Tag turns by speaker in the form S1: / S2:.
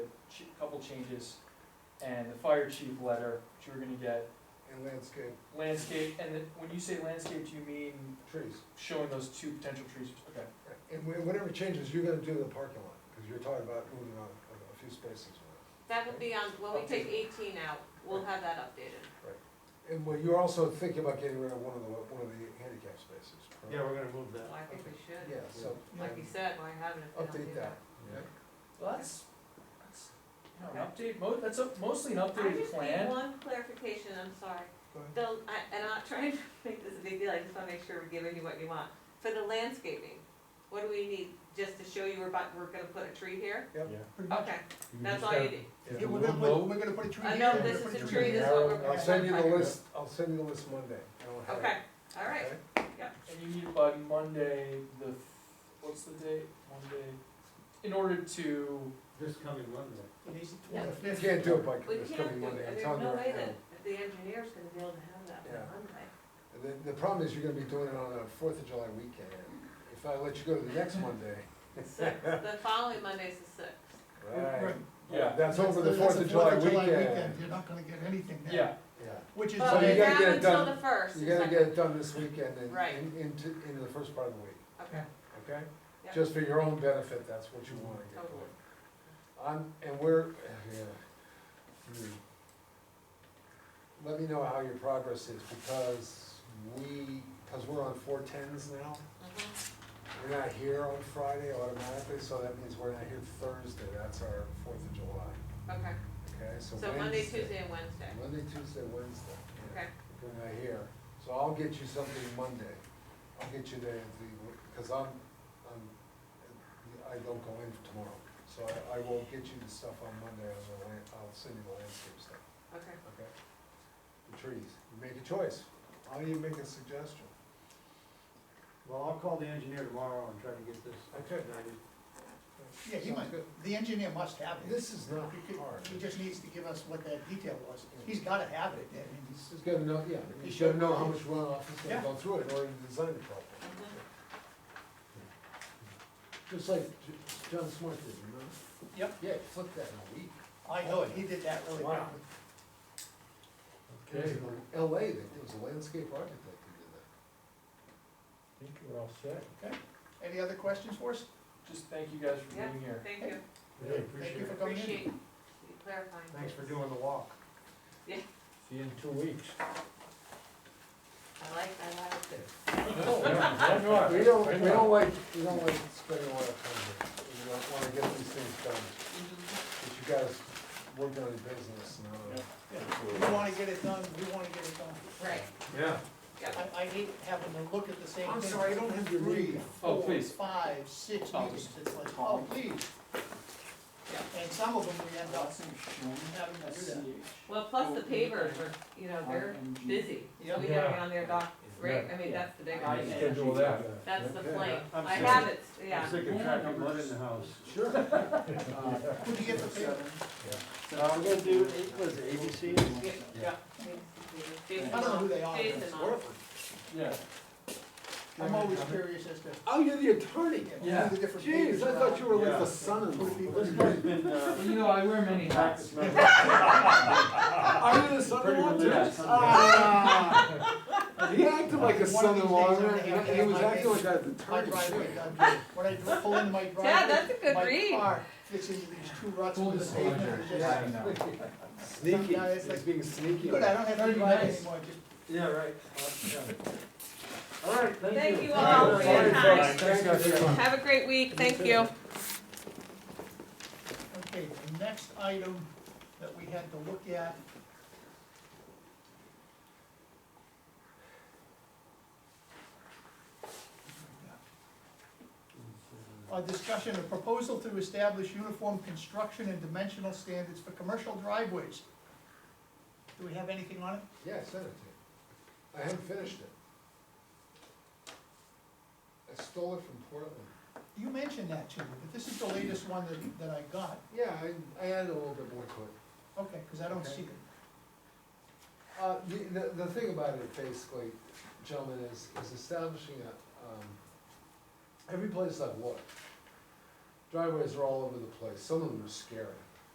S1: changes, and the fire chief letter, which you're gonna get,
S2: and landscape
S1: landscape, and the- when you say landscape, do you mean
S2: trees.
S1: showing those two potential trees? Okay,
S2: And wha- whatever changes, you're gonna do the parking lot, because you're talking about moving on a- a few spaces. around.
S3: That would be on, when we take eighteen out, we'll have that updated.
S2: And well, you're also thinking about getting rid of one of the, one of the handicap spaces. correct?
S4: Yeah, we're gonna move
S3: Well,
S4: that.
S3: I think we should.
S2: Yeah, so.
S3: Like you said, why haven't it been
S2: Update
S3: updated?
S2: that.
S1: well, that's, that's, you know, an update, mo- that's a, mostly an
S3: I
S1: updated
S3: just need
S1: plan.
S3: one clarification, I'm sorry.
S2: Go ahead.
S3: The, I, and I'm not trying to make this a big deal, I just wanna make sure we're giving you what you want. For the landscaping, what do we need, just to show you we're about, we're gonna put a tree here? Okay, that's all you need.
S5: Yeah, we're gonna put, we're gonna put a tree
S3: I
S5: here,
S3: know
S5: we're
S3: this
S5: gonna
S3: is
S5: put
S3: a tree, this is what we're
S2: I'll send you the
S3: gonna
S2: list, I'll send you the list Monday. I don't have it.
S3: Okay, all right,
S2: Okay?
S1: And you need by Monday, the, f- what's the date, Monday, in order to,
S4: This coming Monday.
S5: Today's the
S3: Yeah.
S5: 25th.
S2: You can't do it by,
S3: we
S2: it's
S3: can't
S2: coming
S3: do,
S2: Monday,
S3: and
S2: I'm
S3: there's
S2: telling you
S3: no way
S2: right now.
S3: that the engineer's gonna be able to have that
S2: Yeah.
S3: by Monday.
S2: And The, the problem is you're gonna be doing it on a Fourth of July weekend. If I let you go to the next Monday,
S3: Six, the following Monday's the sixth.
S2: right?
S1: yeah,
S2: That's over the
S5: That's
S2: Fourth of July weekend.
S5: weekend, You're not gonna get anything then.
S1: yeah,
S2: Yeah.
S5: Which is,
S2: So
S3: But
S2: you
S3: we
S5: why-
S2: gotta
S3: have
S2: get it
S3: until
S2: done-
S3: the first.
S2: You gotta
S3: exactly.
S2: get it done this weekend and
S3: Right.
S2: in- into, into the first part of the week.
S3: Okay,
S2: Okay?
S3: Yeah.
S2: Just for your own benefit, that's what you wanna get
S3: Totally.
S2: going. I'm, and we're, yeah. hmm. Let me know how your progress is, because we, because we're on four tens now.
S3: mhm,
S2: We're not here on Friday automatically, so that means we're not here Thursday, that's our Fourth of July,
S3: okay,
S2: okay? So
S3: so Monday,
S2: Wednesday-
S3: Tuesday, and Wednesday,
S2: Monday, Tuesday, Wednesday. yeah.
S3: okay,
S2: Good idea. So I'll get you something Monday. I'll get you the, the, because I'm, I'm, I don't go in tomorrow. So I, I will get you the stuff on Monday, and I'll, land- I'll send you the landscape stuff,
S3: okay.
S2: okay? The trees, you make a choice. I'll even make a suggestion.
S4: Well, I'll call the engineer tomorrow and try to get this.
S2: Okay.
S4: updated.
S5: yeah, he
S2: Sounds
S5: must,
S2: good.
S5: the engineer must have it.
S2: This is not
S5: He could-
S2: hard.
S5: He just needs to give us what that detail was. He's gotta have it, I mean, he's-
S2: He's gotta know, yeah,
S5: He
S2: he's
S5: should.
S2: gotta know how much runoff is gonna
S5: Yeah.
S2: go through it in order to design it properly.
S3: Mhm.
S2: Just like J- John Smart did, you know?
S1: Yep.
S2: Yeah, flip that in a week. Oh,
S5: I know it, he did that really
S2: Wow.
S5: well.
S2: There's one in LA, that there was a landscape architect who did that.
S4: think we're all set.
S5: Any other questions for us?
S1: just thank you guys for being here.
S3: Thank you,
S4: Really
S5: Thank
S4: appreciate
S5: you for
S4: it.
S5: coming in.
S3: appreciate you clarifying.
S4: Thanks for doing the walk.
S6: See you in two weeks.
S3: I like, I like it.
S2: We don't, we don't like, we don't like spending a lot of time here, we don't wanna get these things done,
S3: Mhm.
S2: but you guys work on your business now.
S5: We wanna get it done, we wanna get it done.
S3: Right,
S4: Yeah.
S3: yeah,
S5: I, I hate having to look at the same thing.
S2: I'm sorry, I don't have your
S5: Three,
S2: meeting.
S1: Oh,
S5: four,
S1: please.
S5: five, six
S1: Oh.
S5: meetings, it's like, oh, please. And some of them we end up having to do that.
S3: well, plus the pavers are, you know, they're busy, so we gotta
S6: Yeah.
S3: get on their dock, right, I mean, that's the big
S6: I
S3: idea.
S6: schedule that.
S3: That's the
S2: Okay.
S3: plan,
S4: I'm
S3: I
S4: sick.
S3: have it,
S4: I'm
S3: yeah,
S4: sick of tracking mud in the house.
S2: Sure. Uh,
S5: Who'd you get the paper?
S4: I'm uh, gonna do, was ABC?
S3: Yeah.
S5: Yeah, I
S3: Jason,
S5: don't know who they are.
S3: Jason on it.
S1: Yeah,
S5: I'm always curious as to.
S2: Oh, you're the attorney?
S5: who
S1: Yeah.
S5: the different
S2: Jeez,
S5: papers
S2: I thought you were like
S4: Yeah.
S2: the son-in-law.
S4: This guy's been, uh,
S1: Well, you know, I wear many hats.
S4: practice member.
S2: Are you the son-in-law too?
S1: religious.
S2: Ah. He acted like a
S5: One of these
S2: son-in-law,
S5: days I'm gonna have
S2: and
S5: to
S2: he
S5: have
S2: was
S5: my
S2: acting like
S5: baby-
S2: a
S5: My
S2: attorney.
S5: driveway, I'm- when I do- pull into my driveway.
S3: Yeah, that's a good read.
S5: My car fits into these two ruts
S1: Full
S5: with the pavement,
S1: disclosure,
S5: it's
S1: yeah, I
S5: just,
S1: know.
S2: Sneaky,
S5: Yeah, it's
S2: he's
S5: like-
S2: being sneaky.
S5: good, I don't have to
S1: Very
S5: drive
S1: nice.
S5: anymore, just
S4: Yeah, right. All right, thank you.
S3: Thank you all for your time,
S2: Thanks, guys.
S3: have a great week, thank you.
S5: Okay, the next item that we had to look at. A discussion, a proposal to establish uniform construction and dimensional standards for commercial driveways. Do we have anything on it?
S2: Yeah, I sent it to you. I haven't finished it. I stole it from Portland.
S5: You mentioned that to me, but this is the latest one that, that I got.
S2: Yeah, I, I added a little bit more to it.
S5: Okay, because I don't
S2: Okay.
S5: see it.
S2: Uh, the, the, the thing about it basically, gentlemen, is, is establishing a, um, every place I've looked, driveways are all over the place, some of them are scary.